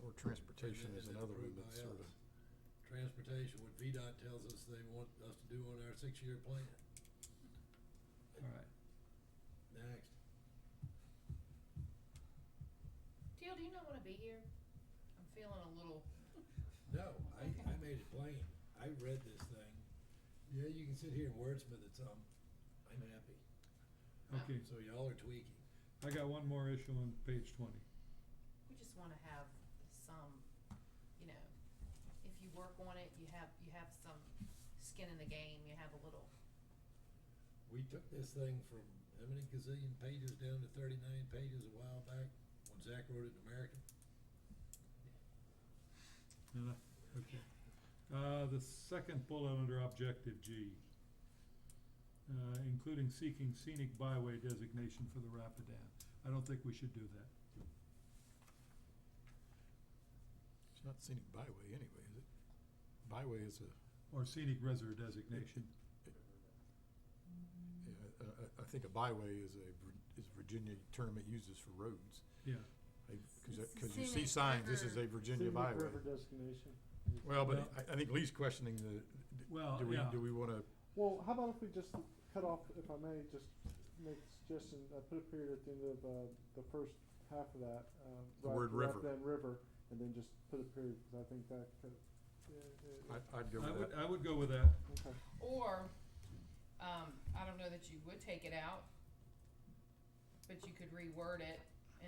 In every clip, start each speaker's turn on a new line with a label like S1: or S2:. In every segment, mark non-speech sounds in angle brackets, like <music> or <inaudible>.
S1: Or transportation is another one that's sort of,
S2: Transportation, what VDOT tells us they want us to do on our six-year plan.
S3: Alright,
S2: Next.
S4: Teal, do you not wanna be here? I'm feeling a little,
S2: No, I, I made it plain. I read this thing. Yeah, you can sit here and wordsmith it some. I'm happy.
S4: um,
S3: okay,
S2: So y'all are tweaking.
S3: I got one more issue on page twenty.
S4: we just wanna have some, you know, if you work on it, you have, you have some skin in the game, you have a little.
S2: We took this thing from how many gazillion pages down to thirty-nine pages a while back when Zach wrote it in American.
S3: And I- okay. Uh, the second bullet under objective G. Uh, including seeking scenic byway designation for the Rapidan. I don't think we should do that.
S1: it's not scenic byway anyway, is it? Byway is a,
S3: Or scenic reservoir designation.
S1: yeah, I, I, I think a byway is a, Vir- is Virginia term it uses for roads.
S3: Yeah,
S1: I- Cause, I-
S5: It's a
S1: cause you see signs,
S5: scenic
S1: this is a
S5: river.
S1: Virginia byway.
S6: Scenic river designation.
S1: Well, but
S3: Well-
S1: I, I think Lee's questioning the, d-
S3: well,
S1: do we,
S3: Oh, yeah,
S1: do we wanna,
S6: Well, how about if we just cut off, if I may, just make a suggestion, uh, put a period at the end of, uh, the first half of that, um.
S1: The
S6: Rap-
S1: word river.
S6: Rapidan River, and then just put a period, cause I think that could, yeah,
S1: I, I'd go
S3: I
S1: with
S3: would,
S1: that.
S3: I would go with that.
S6: okay.
S4: Or, um, I don't know that you would take it out, but you could reword it,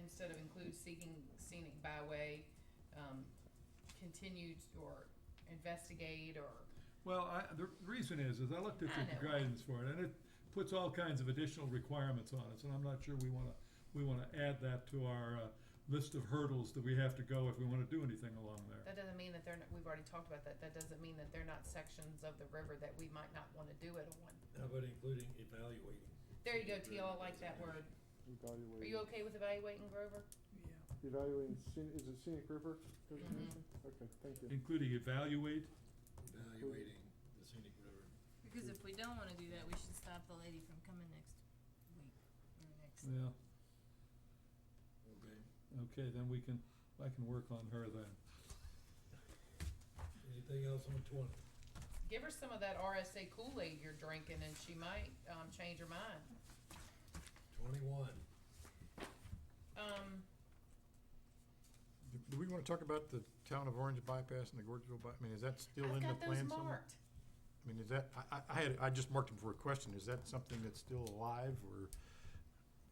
S4: instead of include seeking scenic byway, um, continued or investigate or,
S3: Well, I, the reason is, is I looked at
S4: I
S3: the
S4: know.
S3: guidance for it, and it puts all kinds of additional requirements on us, and I'm not sure we wanna, we wanna add that to our, uh, list of hurdles that we have to go if we wanna do anything along there.
S4: that doesn't mean that they're, not- we've already talked about that, that doesn't mean that they're not sections of the river that we might not wanna do it on.
S2: How about including evaluating?
S4: There you go, Teal, I like that word. Are you
S6: Evaluating,
S4: okay with evaluating Grover?
S6: evaluating scenic, is it scenic river designation?
S4: Mm-hmm.
S6: Okay, thank
S1: Mm.
S6: you.
S3: Including evaluate,
S2: Evaluating the scenic river.
S5: Because if we don't wanna do that, we should stop the lady from coming next week, or next.
S3: yeah,
S2: Okay.
S3: okay, then we can, I can work on her then.
S2: Anything else on twenty?
S4: Give her some of that RSA Kool-Aid you're drinking and she might, um, change her mind.
S2: Twenty-one.
S4: Um,
S1: Do- Do we wanna talk about the town of Orange bypass and the Gorgeville by, I mean, is that still
S4: I've
S1: in the
S4: got those
S1: plan somewhere?
S4: marked.
S1: I mean, is that, I, I, I had, I just marked them for a question, is that something that's still alive, or,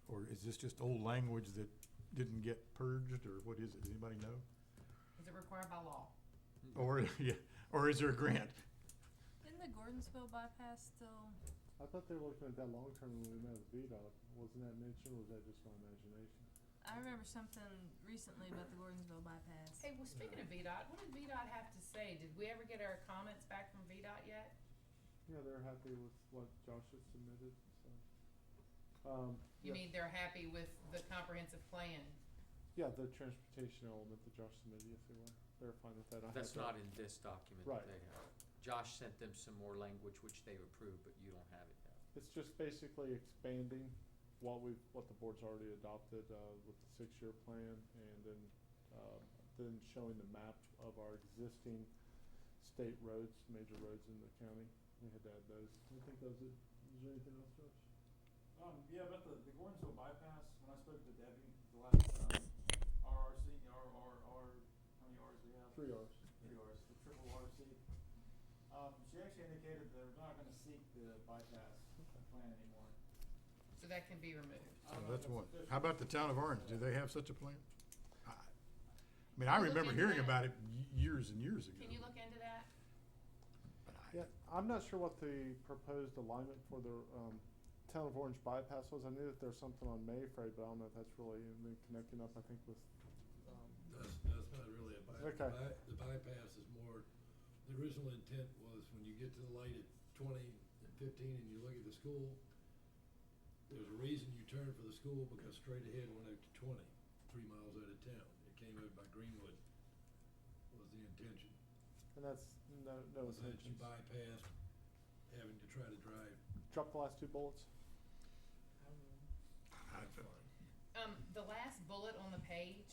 S1: or is this just old language that didn't get purged, or what is it, does anybody know?
S4: Is it required by law?
S1: Or, <laughs> yeah, or is there a grant?
S5: Isn't the Gordonsville bypass still,
S6: I thought they were looking at that long term when we met with VDOT, wasn't that mentioned, or was that just my imagination?
S5: I remember something recently about the Gordonsville bypass.
S4: Hey, well, speaking of VDOT, what did VDOT have to say? Did we ever get our comments back from VDOT yet?
S6: Yeah, they're happy with what Josh had submitted, so. Um,
S4: You
S6: yeah.
S4: mean they're happy with the comprehensive plan?
S6: Yeah, the transportation element that Josh submitted, yes, they were, they're fine with that. I
S7: That's
S6: have
S7: not
S6: that.
S7: in this document
S6: Right.
S7: that they have. Josh sent them some more language, which they approved, but you don't have it now.
S6: It's just basically expanding what we've, what the board's already adopted, uh, with the six-year plan, and then, um, then showing the map of our existing state roads, major roads in the county, we had to add those. I think those are, is there anything else, Josh?
S8: Um, yeah, about the, the Gordonsville bypass, when I spoke to Debbie, the last, um, RRC, R, R, R, how many Rs do we have?
S6: Three Rs.
S8: Three Rs, the triple RC. Um, she actually indicated they're not gonna seek the bypass plan anymore.
S4: So that can be removed.
S8: I
S1: So
S8: don't know if
S1: that's one.
S8: official.
S1: How about the town of Orange, do they have such a plan? I I mean, I
S4: Look
S1: remember
S4: into
S1: hearing
S4: that.
S1: about it y- years and years ago.
S4: Can you look into that?
S1: but I-
S6: Yeah, I'm not sure what the proposed alignment for the, um, Town of Orange bypass was. I knew that there's something on Mayfrey, but I don't know if that's really, and then connecting up, I think, with, um,
S2: That's, that's not really a bypass.
S6: Okay.
S2: The bypass is more, the original intent was when you get to the light at twenty and fifteen and you look at the school, there's a reason you turn for the school because straight ahead went out to twenty, three miles out of town. It came out by Greenwood was the intention.
S6: And that's no, no
S2: Was that you
S6: intentions.
S2: bypassed having to try to drive.
S6: Drop the last two bullets.
S1: I-
S4: Um, the last bullet on the page,